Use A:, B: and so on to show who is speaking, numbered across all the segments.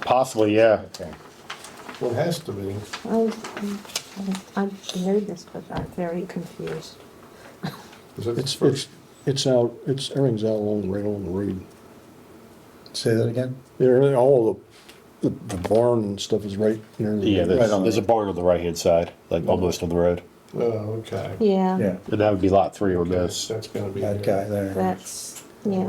A: Possibly, yeah.
B: Okay. Well, it has to be.
C: Oh, I'm nervous, but I'm very confused.
B: Is it
D: It's,
B: first?
D: it's, it's out, it's, everything's out along, right on the road.
E: Say that again?
D: There, all the, the the barn and stuff is right near. the-
A: Yeah, there's,
E: Right on.
A: there's a barn on the right-hand side, like almost on the road.
B: Oh, okay.
C: Yeah,
E: Yeah,
A: And that would be lot three or this.
B: That's gonna be.
E: that guy there.
C: that's, yeah,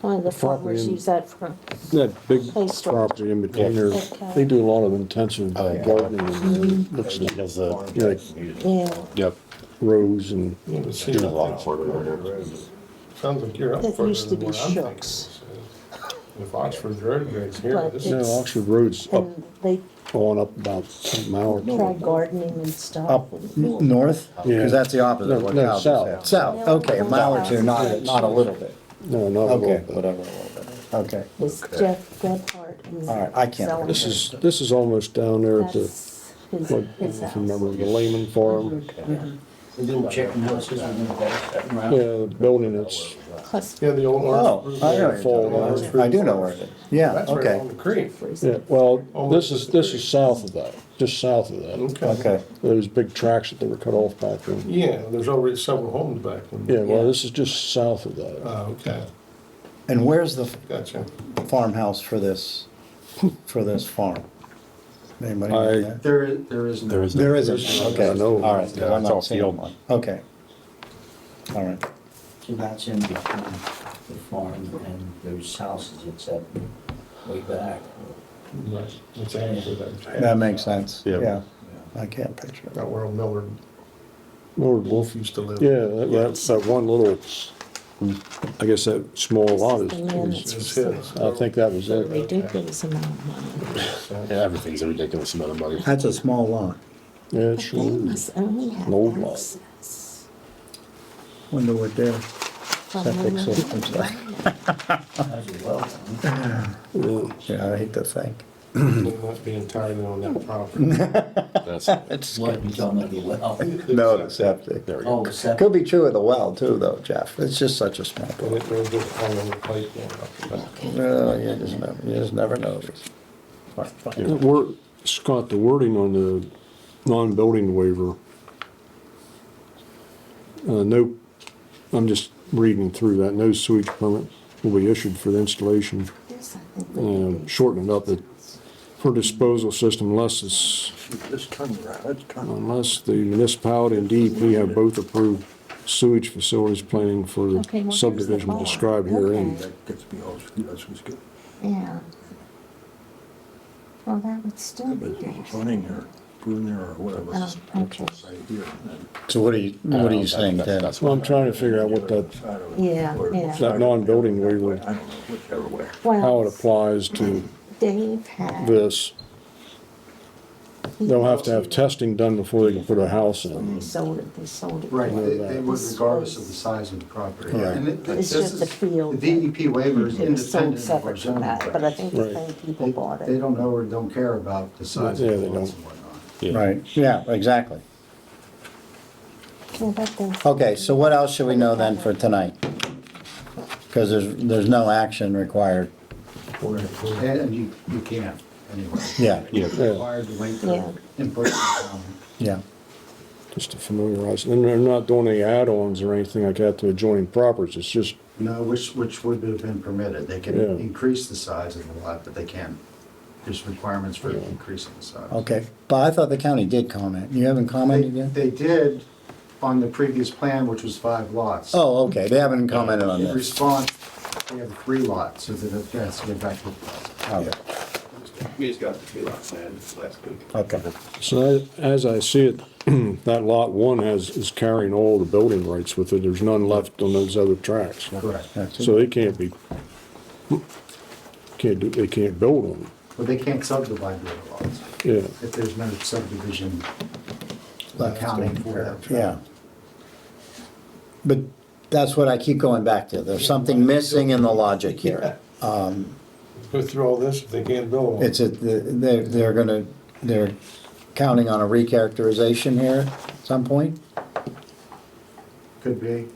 C: one of the
D: Property
C: farmers
D: in-
C: use that for,
D: That big
C: Hey, stop.
D: property in between
A: Yeah.
D: there,
C: Okay.
D: they do a lot of intensive
A: Oh, yeah.
D: gardening
C: Mm-hmm.
D: and looks
A: He
D: at
A: does the,
D: you know, like
C: yeah,
A: yep,
D: rows and,
B: Yeah, but see,
A: Doing a
B: I
A: lot
B: think
A: of work
B: it's
A: over
B: Oxford Road. Sounds like you're up
C: That
B: further
C: used to
B: than
C: be
B: what I'm thinking.
C: Shucks.
B: so. If Oxford Road goes here,
C: But
B: this
D: you know,
B: is.
C: It's-
D: Oxford Road's up,
C: and they
D: going up about a mile or
C: try
D: two.
C: gardening and stuff.
D: Oh,
E: Up n- north?
D: Yeah.
E: Because that's the opposite of
D: No,
E: what
D: no,
E: Cal just
D: south.
E: said. South, okay, a mile or two, not, not a little bit.
D: No, not a
E: Okay,
D: little bit.
E: whatever, a little bit, okay.
C: It's Jeff Gephardt. who's
E: All right, I can't-
C: selling
D: This
C: it.
D: is, this is almost down there at the,
C: That's his,
D: what,
C: his
D: if you
C: house.
D: remember, the Lehman Farm.
F: Little chicken houses and little that
D: Yeah,
F: around.
D: the building that's,
C: Plus,
B: Yeah, the old
E: Oh,
B: Oxford.
E: I know,
B: Road.
E: what you're talking about. I do know where it is, yeah,
B: That's right on
E: okay,
B: the creek.
D: yeah, well, this is, this is south of that, just south of that.
B: Okay.
E: okay.
D: Those big tracks that they were cut off back then.
B: Yeah, there's already several homes back
D: Yeah,
B: then.
D: well, this is just south of that.
B: Oh, okay,
E: And where's the
B: gotcha.
E: farmhouse for this, for this farm? Anybody
D: I-
E: know that?
F: There is, there is.
A: there is.
E: There isn't, okay,
D: I know.
E: all right, 'cause
A: Yeah,
E: I'm
A: it's all
E: not seeing
A: field.
E: one, okay. All right,
F: So that's in between the farm and those houses, it's up way back.
B: Right. It's after that.
E: that makes sense,
A: Yeah.
E: yeah, I can't picture it.
B: About where old Millard
D: Lord
B: Wolf
D: Wolf,
B: used to live.
D: yeah, that, that, that one little, I guess that small lot
C: the man that's
D: is,
B: It's
C: for
B: his.
D: I think that was
C: a
D: it.
C: ridiculous amount of money.
A: Yeah, everything's a ridiculous amount of money.
E: That's a small lot.
D: Yeah, it
C: But they
D: sure. is.
C: must only have
D: Old lot.
C: access
E: Wonder what their
C: from
E: septic
C: one
E: system's like.
F: As well. huh?
D: Yeah.
E: Yeah, I hate to think.
B: They must be entirely on that property.
A: That's, there
F: What, you don't know the well?
E: No, the septic.
A: we go.
F: Oh, except,
E: Could be true of the well too, though, Jeff. It's just such a small
B: And
E: problem.
B: it was just all over the place. yeah.
E: Well, you just never, you just never know. All right, fine.
D: The wor- Scott, the wording on the non-building waiver. Uh, no, I'm just reading through that, no sewage permit will be issued for the installation,
C: This, I think, would
D: um,
C: be-
D: shorten it up, that for disposal system unless it's
E: Just turn around, let's turn.
D: Unless the municipality and DEP have both approved sewage facilities planning for
C: Okay, well,
D: the
C: here's the
D: subdivision
C: bar.
D: described herein.
C: Okay.
E: That gets me all, uh, that's what's good.
C: Yeah. Well, that would still be nice.
E: running here, in there or whatever.
C: Oh, okay.
E: So what do you, what do you think then?
A: That's
D: Well,
A: what
D: I'm trying to figure out what that,
C: Yeah, yeah.
D: that non-building waiver, how it
C: Well,
D: applies to
C: Dave had.
D: this. They'll have to have testing done before they can put a house
C: When
D: in.
C: they sold it, they sold it.
G: Right, they, they would
C: This
G: regardless
C: was-
G: of the size of the property.
E: Right.
G: And it-
C: It's
G: this
C: just
G: is-
C: the field
G: The DEP waiver is
C: It was sold
G: independent of our
C: separate from
G: zoning.
C: that, but I think the
D: Right.
C: same people
G: They,
C: bought
G: they
C: it.
G: don't know or don't care about the size
D: Yeah,
G: of
D: they
G: the lots
D: don't.
G: and whatnot.
E: Right, yeah, exactly.
C: Well, that does-
E: Okay, so what else should we know then for tonight? Because there's, there's no action required.
G: And and you, you can't anyway.
E: Yeah,
A: Yeah.
G: You're required to wait
C: Yeah.
G: for input. and comment.
E: yeah.
D: Just to familiarize, and they're not doing any add-ons or anything like that to adjoining properties, it's just,
G: No, which, which would have been permitted. They can
D: Yeah.
G: increase the size of the lot, but they can't. There's requirements for increasing the size.
E: Okay, but I thought the county did comment. You haven't
G: They,
E: commented yet?
G: they did on the previous plan, which was five lots.
E: Oh, okay, they haven't commented on
G: In
E: this.
G: response, they have three lots, so that it has to get back to the plaza.
E: Okay,
H: We just got the tree lot signed last week.
E: okay,
D: So I- as I see it, that lot one has, is carrying all the building rights with it. There's none left on those other tracks.
G: Correct.
E: that's
D: So they can't be, can't do, they can't build on
G: But they can't subdivide the other lots
D: it. Yeah,
G: if there's no subdivision
E: Left.
G: accounting for that.
E: Yeah. But that's what I keep going back to. There's something missing in the logic here.
B: Go through all this if they can't build on it.
E: It's a, they're, they're gonna, they're counting on a recharacterization here at some point?
G: Could be.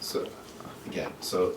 H: So, again, so